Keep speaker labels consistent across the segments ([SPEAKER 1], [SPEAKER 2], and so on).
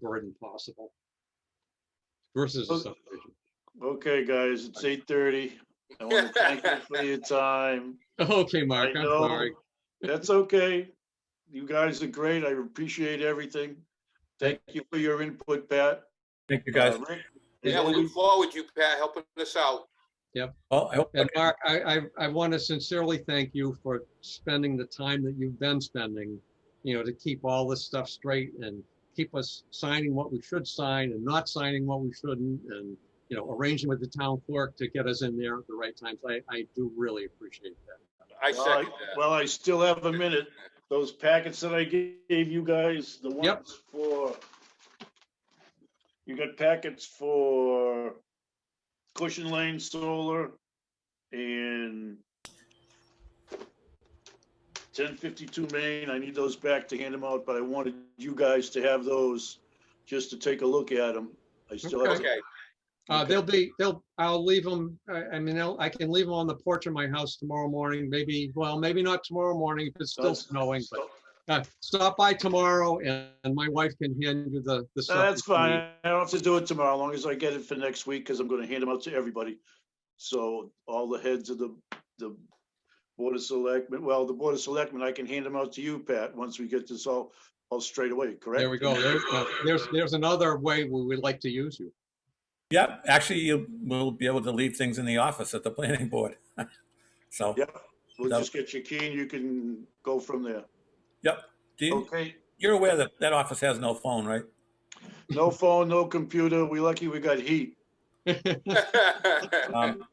[SPEAKER 1] burden possible. Versus a
[SPEAKER 2] Okay.
[SPEAKER 1] subdivision.
[SPEAKER 2] Okay, guys, it's eight thirty. I want to thank you for your time.
[SPEAKER 1] Okay, Mark,
[SPEAKER 2] I
[SPEAKER 1] I'm
[SPEAKER 2] know.
[SPEAKER 1] sorry.
[SPEAKER 2] That's okay. You guys are great. I appreciate everything. Thank you for your input, Pat.
[SPEAKER 3] Thank you, guys.
[SPEAKER 2] Uh, Rick, as
[SPEAKER 4] Yeah, we look
[SPEAKER 2] always,
[SPEAKER 4] forward to you, Pat, helping us out.
[SPEAKER 3] Well, Oh, I hope,
[SPEAKER 1] And Mark, I, I, I want to sincerely thank you for spending the time that you've been spending, you know, to keep all this stuff straight and keep us signing what we should sign and not signing what we shouldn't and, you know, arranging with the town clerk to get us in there at the right times. I, I do really appreciate that.
[SPEAKER 4] I
[SPEAKER 2] Well, I-
[SPEAKER 4] second that.
[SPEAKER 2] well, I still have a minute. Those packets that I ga- gave you guys, the
[SPEAKER 1] Yep.
[SPEAKER 2] ones for, you got packets for Cushion Lane Solar and ten fifty-two Main. I need those back to hand them out, but I wanted you guys to have those just to take a look at them. I still have,
[SPEAKER 4] Okay,
[SPEAKER 1] Uh, they'll be, they'll, I'll leave them, I, I mean, I'll- I can leave them on the porch of my house tomorrow morning, maybe, well, maybe not tomorrow morning if it's still
[SPEAKER 2] That's-
[SPEAKER 1] snowing, but uh, stop by tomorrow and, and my wife can hand you the, the stuff.
[SPEAKER 2] No, that's
[SPEAKER 1] that you need.
[SPEAKER 2] fine. I don't have to do it tomorrow, as long as I get it for next week, because I'm gonna hand them out to everybody. So all the heads of the, the Board of Selectmen, well, the Board of Selectmen, I can hand them out to you, Pat, once we get this all, all straight away, correct?
[SPEAKER 1] There we go. There's, uh, there's, there's another way we would like to use you.
[SPEAKER 3] yeah, actually, you will be able to leave things in the office at the planning board. So,
[SPEAKER 2] Yeah. We'll just get your key and you can go from there.
[SPEAKER 3] do you,
[SPEAKER 2] Okay,
[SPEAKER 3] you're aware that that office has no phone, right?
[SPEAKER 2] no phone, no computer. We lucky we got heat.
[SPEAKER 3] Um,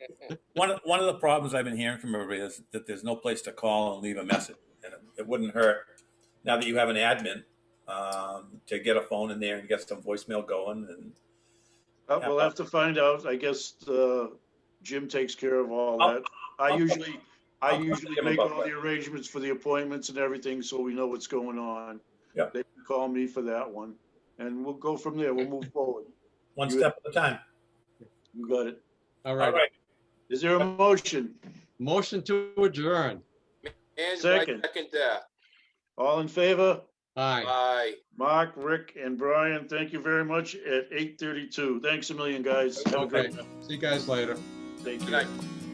[SPEAKER 3] One, of- one of the problems I've been hearing from everybody is that there's no place to call and leave a message. And it wouldn't hurt, now that you have an admin, um, to get a phone in there and get some voicemail going and
[SPEAKER 2] Uh, We'll have to find out. I guess uh, Jim takes care of all that. I
[SPEAKER 3] I'll-
[SPEAKER 2] usually, I
[SPEAKER 3] I'll talk to
[SPEAKER 2] usually
[SPEAKER 3] him
[SPEAKER 2] make
[SPEAKER 3] about
[SPEAKER 2] all the
[SPEAKER 3] that.
[SPEAKER 2] arrangements for the appointments and everything, so we know what's going on.
[SPEAKER 3] Yeah.
[SPEAKER 2] They can call me for that one, and we'll go from there. We'll move forward.
[SPEAKER 3] one step at a time.
[SPEAKER 2] You got it.
[SPEAKER 1] All
[SPEAKER 3] All
[SPEAKER 1] right.
[SPEAKER 3] right,
[SPEAKER 2] Is there a motion?
[SPEAKER 1] Motion to adjourn.
[SPEAKER 4] And I
[SPEAKER 2] Second.
[SPEAKER 4] second that.
[SPEAKER 2] All in favor?
[SPEAKER 1] Aye.
[SPEAKER 4] Aye.
[SPEAKER 2] Mark, Rick, and Brian, thank you very much at 8:32. Thanks a million, guys. Have a great
[SPEAKER 1] Okay.
[SPEAKER 2] night.
[SPEAKER 1] See you guys later.
[SPEAKER 2] Thank
[SPEAKER 4] Good
[SPEAKER 2] you.
[SPEAKER 4] night.